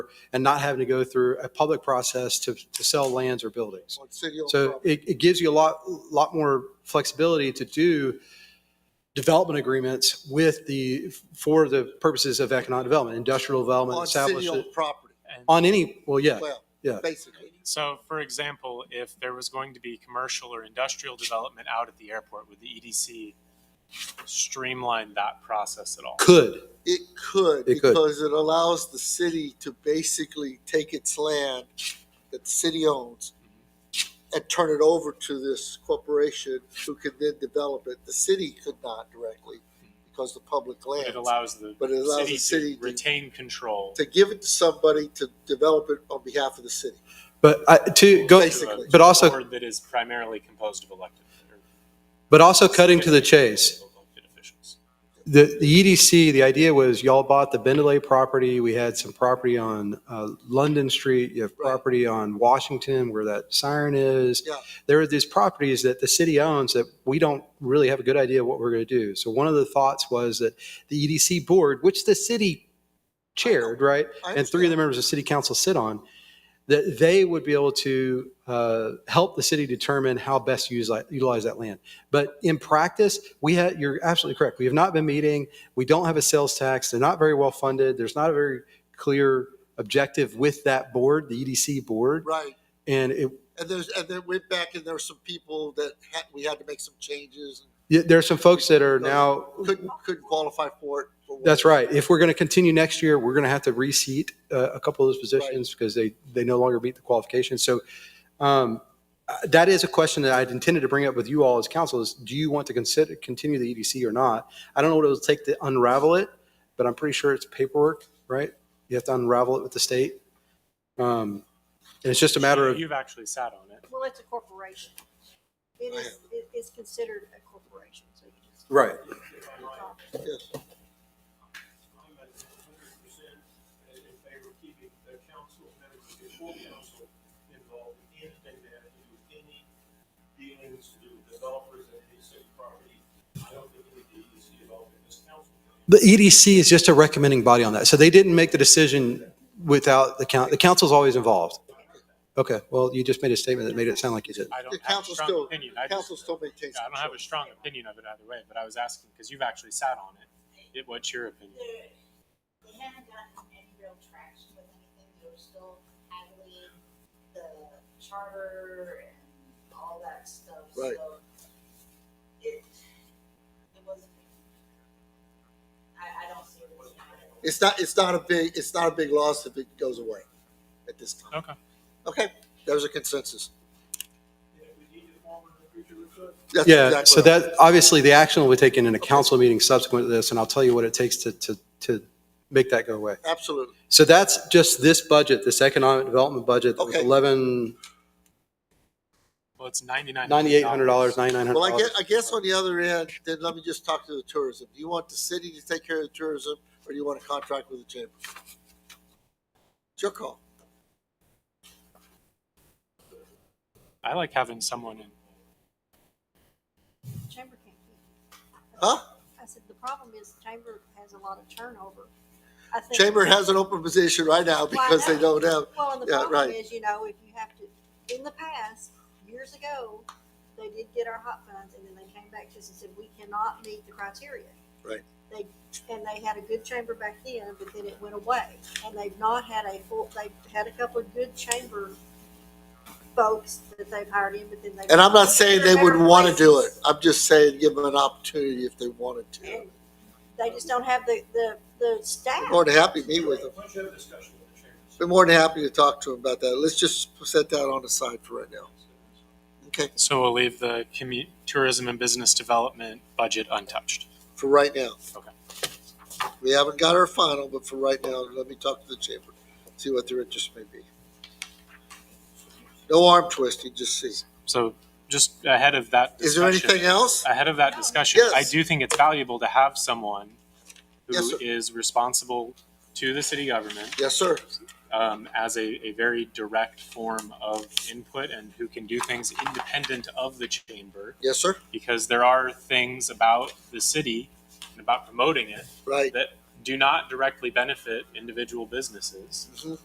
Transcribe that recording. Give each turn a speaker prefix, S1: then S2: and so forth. S1: and not having to go through a public process to, to sell lands or buildings.
S2: on city-owned
S1: So
S2: property.
S1: it, it gives you a lot, lot more flexibility to do development agreements with the, for the purposes of economic development, industrial development,
S2: On
S1: established,
S2: city-owned property,
S1: on any, well, yeah,
S2: well,
S1: yeah.
S2: basically.
S3: So, for example, if there was going to be commercial or industrial development out at the airport, would the EDC streamline that process at all?
S1: Could,
S2: It could,
S1: It could.
S2: because it allows the city to basically take its land that the city owns and turn it over to this corporation who could then develop it. The city could not directly because the public land.
S3: It allows the
S2: But it allows the
S3: city
S2: city
S3: to
S2: to-
S3: retain control.
S2: To give it to somebody to develop it on behalf of the city.
S1: but I, to go,
S2: Basically.
S1: but also,
S3: Board that is primarily composed of elected. or
S1: but also cutting to the chase.
S3: elected officials.
S1: The, the EDC, the idea was y'all bought the Bendelay property. We had some property on uh, London Street. You have
S2: Right.
S1: property on Washington where that siren is.
S2: Yeah.
S1: There are these properties that the city owns that we don't really have a good idea what we're going to do. So one of the thoughts was that the EDC board, which the city chaired, right? And three
S2: I
S1: of
S2: understand.
S1: the members of city council sit on, that they would be able to uh, help the city determine how best to utilize, utilize that land. But in practice, we had, you're absolutely correct. We have not been meeting. We don't have a sales tax. They're not very well funded. There's not a very clear objective with that board, the EDC board.
S2: Right.
S1: And it,
S2: And there's, and then went back and there were some people that had, we had to make some changes.
S1: yeah, there are some folks that are now,
S2: Couldn't, couldn't qualify for it. for what-
S1: that's right. If we're going to continue next year, we're going to have to reseat uh, a couple of those positions because they, they no longer meet the qualifications. So um, uh, that is a question that I'd intended to bring up with you all as council is, do you want to consider, continue the EDC or not? I don't know what it'll take to unravel it, but I'm pretty sure it's paperwork, right? You have to unravel it with the state. Um, And it's just a matter of,
S3: You've actually sat on it.
S4: Well, it's a corporation. It is, it is considered a corporation, so you just.
S1: right.
S2: Yes.
S5: I'm at hundred percent in favor of keeping the council, members of the full council involved in anything that has to do with any dealings to developers and any city property. I don't think we need to see involved in this council.
S1: The EDC E is just a recommending body on that. So they didn't make the decision without the coun, the council's always involved. Okay, well, you just made a statement that made it sound like you did.
S3: I don't
S2: The
S3: have a
S2: council
S3: strong
S2: still,
S3: opinion. I
S2: council
S3: just-
S2: still maintains.
S3: I don't have a strong opinion of it either way, but I was asking, because you've actually sat on it. It- What's your opinion?
S6: they're, they haven't gotten any real traction with anything. They're still haggling the charter and all that stuff.
S2: Right.
S6: So it, it wasn't. I, I don't see it was.
S2: It's not, it's not a big, it's not a big loss if it goes away at this time.
S3: Okay.
S2: Okay, there's a consensus.
S5: Yeah, we need to form in the future with the
S2: That's
S1: Yeah,
S2: exactly
S1: so
S2: what I'm-
S1: that, obviously, the action will be taken in a council meeting subsequent to this, and I'll tell you what it takes to, to, to make that go away.
S2: Absolutely.
S1: So that's just this budget, this economic development budget, that was
S2: Okay.
S1: eleven,
S3: Well, it's ninety-nine.
S1: ninety-eight hundred dollars, ninety-nine hundred
S2: Well, I guess,
S1: dollars.
S2: I guess on the other end, then let me just talk to the tourism. Do you want the city to take care of the tourism or do you want to contract with the chamber? It's your call.
S3: I like having someone in.
S4: Chamber can't keep it.
S2: Huh?
S4: I said, the problem is the chamber has a lot of turnover. I think-
S2: Chamber has an open position right now
S4: Well, I
S2: because they
S4: know.
S2: don't have,
S4: Well, and the
S2: yeah,
S4: problem
S2: right.
S4: is, you know, if you have to, in the past, years ago, they did get our hot funds and then they came back to us and said, we cannot meet the criteria.
S2: Right.
S4: They, and they had a good chamber back then, but then it went away. And they've not had a full, they've had a couple of good chamber folks that they've hired in, but then they.
S2: and I'm not saying they
S4: They're
S2: wouldn't want to do it.
S4: places.
S2: I'm just saying give them an opportunity if they wanted to.
S4: And They just don't have the, the, the staff.
S2: More than happy to meet with them.
S5: Let's have a discussion with the chambers.
S2: Be more than happy to talk to him about that. Let's just set that on the side for right now. Okay,
S3: So we'll leave the commu- tourism and business development budget untouched.
S2: for right now.
S3: Okay.
S2: We haven't got our final, but for right now, let me talk to the chamber, see what their interest may be. No arm twisting, just see.
S3: So just ahead of that
S2: Is there
S3: discussion.
S2: anything else?
S3: Ahead of that discussion, I
S2: Yes.
S3: do think it's valuable to have someone
S2: Yes,
S3: who
S2: sir.
S3: is responsible to the city government
S2: Yes, sir.
S3: um, as a, a very direct form of input and who can do things independent of the chamber.
S2: Yes, sir.
S3: Because there are things about the city and about promoting it
S2: Right.
S3: that do not directly benefit individual businesses.
S2: Mhm.